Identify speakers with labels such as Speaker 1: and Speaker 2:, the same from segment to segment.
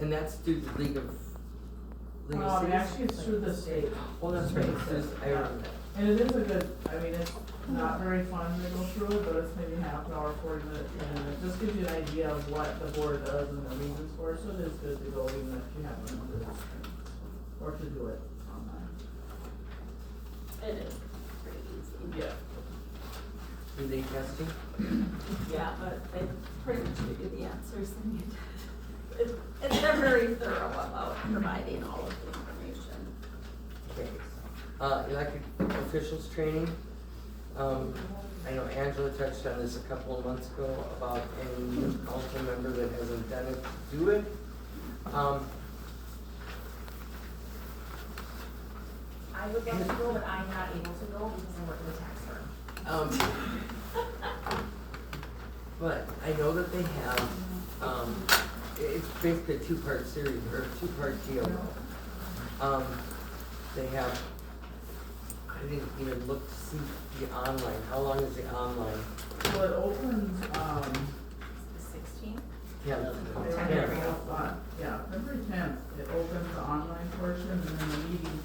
Speaker 1: and that's through the League of, League of
Speaker 2: Um,
Speaker 1: Cities?
Speaker 2: actually, it's through the state,
Speaker 1: Oh, that's right, it's just- I remember that.
Speaker 2: and it is a good, I mean, it's not very fun to go through it, but it's maybe half an hour, forty minutes, and it just gives you an idea of what the board does and the reasons for it, so it is good to go even if you haven't done this thing, or to do it online.
Speaker 3: It is pretty easy.
Speaker 2: Yeah.
Speaker 1: Are they testing?
Speaker 3: Yeah, but they pretty much give you the answers and you, it's, it's, they're very thorough about providing all of the information.
Speaker 1: Okay. Uh, elected officials training, um, I know Angela touched on this a couple of months ago about any new council member that hasn't done it, to do it. Um,
Speaker 4: I would love to go, but I'm not able to go because I work in the tax firm.
Speaker 1: um, but I know that they have, um, it- it's basically a two-part series, or a two-part deal. Um, they have, I didn't even look to see the online, how long is the online?
Speaker 2: Well, it opens, um,
Speaker 4: The sixteenth?
Speaker 1: Yeah,
Speaker 2: They
Speaker 4: Ten.
Speaker 2: have a lot, yeah, February tenth, it opens the online portion, and then the meeting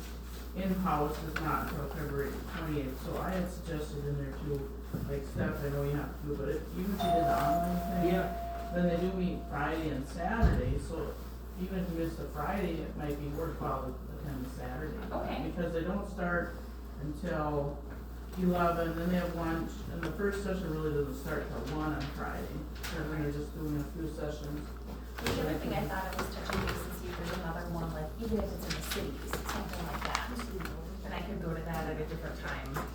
Speaker 2: in-house is not until February twentieth, so I had suggested in there too, like Steph, I know you have to do, but if, even if you did the online thing. Then they do meet Friday and Saturday, so even if you miss the Friday, it might be worthwhile to attend the Saturday.
Speaker 4: Okay.
Speaker 2: Because they don't start until eleven, then they have lunch, and the first session really doesn't start till one on Friday, and then you're just doing a few sessions.
Speaker 4: The other thing I thought I was touching base is if there's another one, like even if it's in the cities, something like that. Then I could go to that at a different time.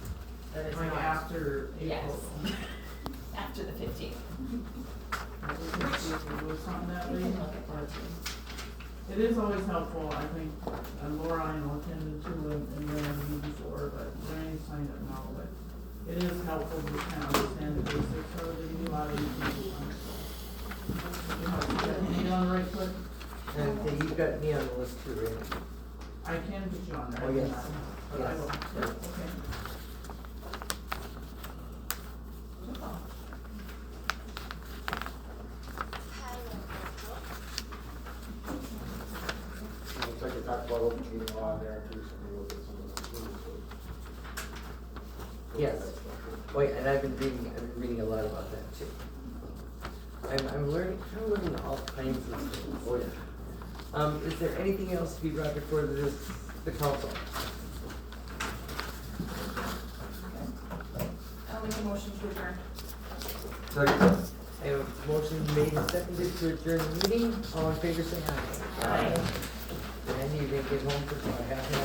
Speaker 4: That is
Speaker 2: Like
Speaker 4: not
Speaker 2: after April.
Speaker 4: Yes. after the fifteenth.
Speaker 2: Maybe we can see if we do something that
Speaker 4: We
Speaker 2: way,
Speaker 4: can look at
Speaker 2: but
Speaker 4: that too.
Speaker 2: It is always helpful, I think, and Laura I know attended to and, and Larry before, but Larry signed up now, but it is helpful to kind of understand the basics of it, you allow you to do one. You have to get me on the right foot,
Speaker 1: and uh, you've got me on the list too, right?
Speaker 2: I can put you on there.
Speaker 1: Oh, yes.
Speaker 2: But I will,
Speaker 1: Yes.
Speaker 2: yeah, okay.
Speaker 5: And It's like they talked about open meeting law there too, so maybe we'll get some of those rules. so-
Speaker 1: Yes. Wait, and I've been reading, I've been reading a lot about that too. I'm, I'm learning, I'm learning all kinds of things. Oh, yeah. Um, is there anything else to be brought before this, the council?
Speaker 4: I'll make a motion to adjourn.
Speaker 1: I have a motion made and seconded to adjourn the meeting, all in favor say aye. Aye. And you didn't get home for about half an hour.